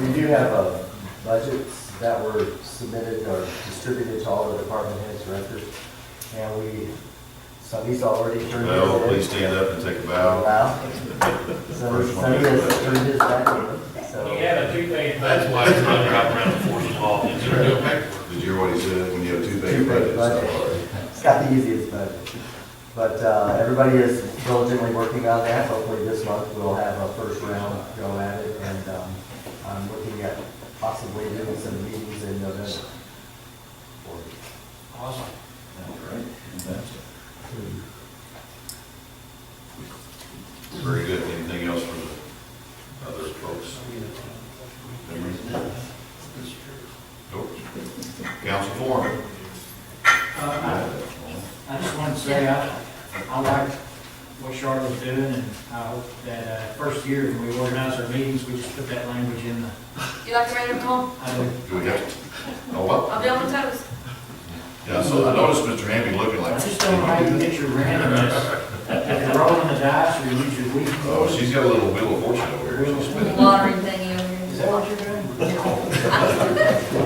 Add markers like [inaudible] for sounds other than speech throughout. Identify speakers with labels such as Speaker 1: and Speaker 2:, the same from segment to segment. Speaker 1: We do have uh, budgets that were submitted or distributed to all the department heads, directors, and we, some he's already turned his in.
Speaker 2: Well, please stand up and take a bow.
Speaker 1: Wow. So
Speaker 2: First one.
Speaker 1: some has turned his back, so.
Speaker 3: We have a two-page
Speaker 4: That's
Speaker 3: budget.
Speaker 4: why it's not dropping around the forces law, it's gonna do it backwards.
Speaker 2: Did you hear what he said? When you have two big
Speaker 1: Two-page
Speaker 2: budgets, it's not
Speaker 1: budget.
Speaker 2: hard.
Speaker 1: It's not the easiest, but, but uh, everybody is diligently working on that. Hopefully this month we'll have a first round go at it, and um, I'm looking at possibly doing some meetings in November.
Speaker 4: Awesome.
Speaker 2: Very good. Anything else from the other folks? Nope. Council forum.
Speaker 5: Uh, I I just wanted to say, I, I like what Charlotte's doing, and I hope that, uh, first year when we organize our meetings, we just put that language in the,
Speaker 6: You like to ride them home?
Speaker 5: I do.
Speaker 2: Do we have, oh, what?
Speaker 6: I'll be on my toes.
Speaker 2: Yeah, so I noticed Mr. Hamby looking
Speaker 5: I
Speaker 2: like.
Speaker 5: just don't like to get your randomness, if you're rolling the dice, or you use your weak.
Speaker 2: Oh, she's got a little wheel of fortune over here. She's spinning.
Speaker 6: Lottery thingy over
Speaker 5: Is
Speaker 6: here.
Speaker 5: that
Speaker 3: [laughs]
Speaker 5: what you're doing?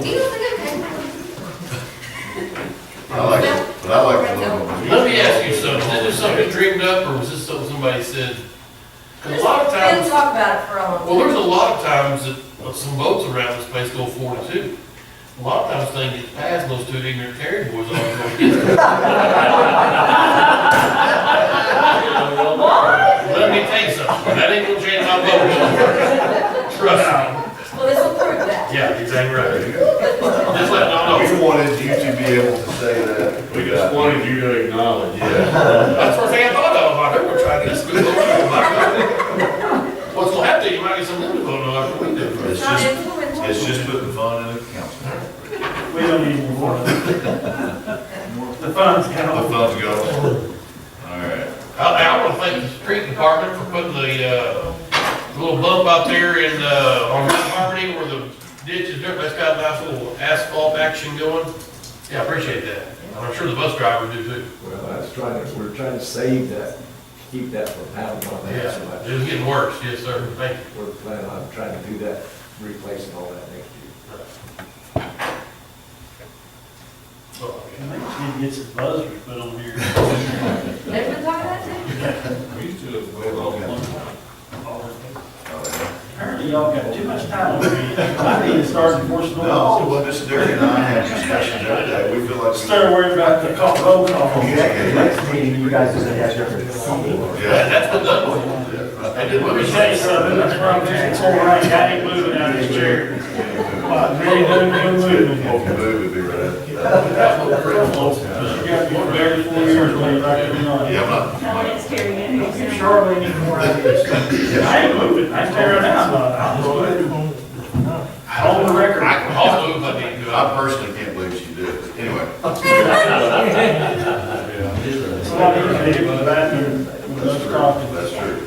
Speaker 6: Do you think I'm okay?
Speaker 2: I like, it, but I like the little.
Speaker 4: Let me ask you something, is this something you dreamed up, or was this something somebody said? 'Cause a lot of
Speaker 6: We'll
Speaker 4: times,
Speaker 6: talk about it for a
Speaker 4: well,
Speaker 6: long
Speaker 4: there's a lot of times that uh, some boats around this place go forty-two. A lot of times things get passed, and those two ignorant carry boys all go against it. Let me tell you something, that ain't gonna change my vote. Trust me.
Speaker 6: Well, this will prove that.
Speaker 4: Yeah, exactly
Speaker 2: There
Speaker 4: right.
Speaker 2: you go.
Speaker 4: Just let Don know.
Speaker 2: We wanted you to be able to say that.
Speaker 7: We just wanted you to acknowledge.
Speaker 2: Yeah.
Speaker 4: That's the first thing I thought of, I heard we're trying this, we're What's gonna happen, you might get some new vote, like we do.
Speaker 2: It's
Speaker 6: It's not
Speaker 2: just,
Speaker 6: influential.
Speaker 2: it's just putting fun in the council.
Speaker 3: We don't need more. The funds count.
Speaker 2: The fun's going. All right.
Speaker 4: I, I wanna thank the street department for putting the, uh, little bump out there in, uh, on my property where the ditch is dirt, that's got a nice little asphalt action going. Yeah, I appreciate that, and I'm sure the bus drivers do too.
Speaker 8: Well, I was trying to, we're trying to save that, keep that from happening on that, so
Speaker 4: Yeah, it was getting worse, yes, sir, thank you.
Speaker 8: I- we're planning on trying to do that, replacing all that next year.
Speaker 4: Oh,
Speaker 3: I think she needs to get some buzzers put on here.
Speaker 6: They've been talking about it too.
Speaker 7: We used to have
Speaker 2: Well, okay.
Speaker 3: Apparently y'all got too much time on your hands. I need to start enforcing
Speaker 2: No,
Speaker 3: laws.
Speaker 2: well, Mr. Derry and I had discussions the other day, we feel like. we-
Speaker 3: Start worrying about the call, roll call.
Speaker 2: Yeah, yeah,
Speaker 1: Next meeting, you guys are gonna have different seating.
Speaker 2: yeah.
Speaker 4: That's what that was. I did
Speaker 3: Let
Speaker 4: what
Speaker 3: me
Speaker 4: we
Speaker 3: tell you
Speaker 4: said.
Speaker 3: something, that's where I'm just torn right, I ain't moving out of this chair. Like, really, no, no moving.
Speaker 2: If you move, it'd be right up.
Speaker 4: That's what we're in for.
Speaker 3: You got to be prepared for years, later, right there, you know.
Speaker 2: Yeah, I'm not,
Speaker 5: You surely need more ideas.
Speaker 3: I ain't moving, I ain't tearing down, I'm just On the record.
Speaker 4: I can also, if I need to,
Speaker 2: I
Speaker 4: I-
Speaker 2: personally can't believe she did it, anyway.
Speaker 3: Somebody can hit the bathroom with
Speaker 2: That's
Speaker 3: those
Speaker 2: true,
Speaker 3: coffee.
Speaker 2: that's true.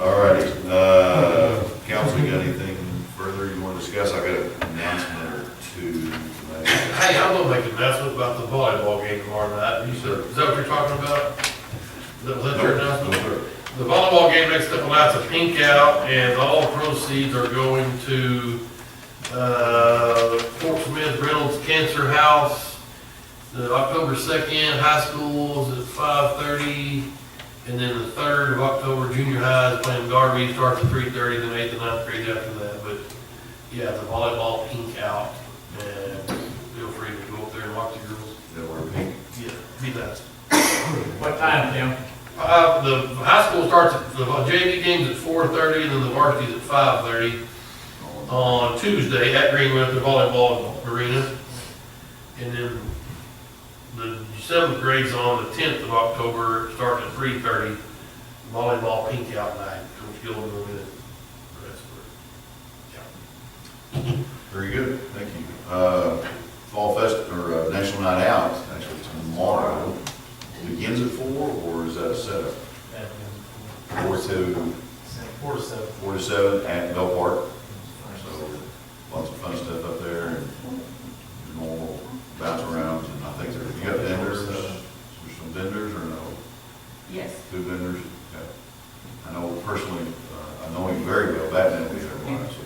Speaker 2: All righty, uh, council, you got anything further you want to discuss? I got an announcement or two to make.
Speaker 4: hey, I'm gonna make an announcement about the volleyball game tomorrow night, you said, is that what you're talking about? That was that your announcement? The volleyball game next up tonight's a pink out, and all proceeds are going to, uh, Fort Smith Reynolds Cancer House. The October second, high school is at five thirty, and then the third of October, junior high is playing Darby, starts at three thirty, then eighth and ninth grade after that, but, yeah, the volleyball pink out, and feel free to go up there and watch the girls.
Speaker 2: That were pink.
Speaker 4: Yeah, be nice.
Speaker 5: What time, Tim?
Speaker 4: Uh, the high school starts, at the JV game's at four thirty, and then the varsity's at five thirty on Tuesday at Greenwood at the volleyball arena. And then the seventh grade's on the tenth of October, starting at three thirty, volleyball pink out night, Coach Gilman will be the rest of
Speaker 2: Very good, thank you. Uh, Fall Fest, or uh, National Night Out, actually tomorrow, begins at four, or is that a setup? Four to,
Speaker 3: Four seven.
Speaker 2: four to seven at Bell Park. uh,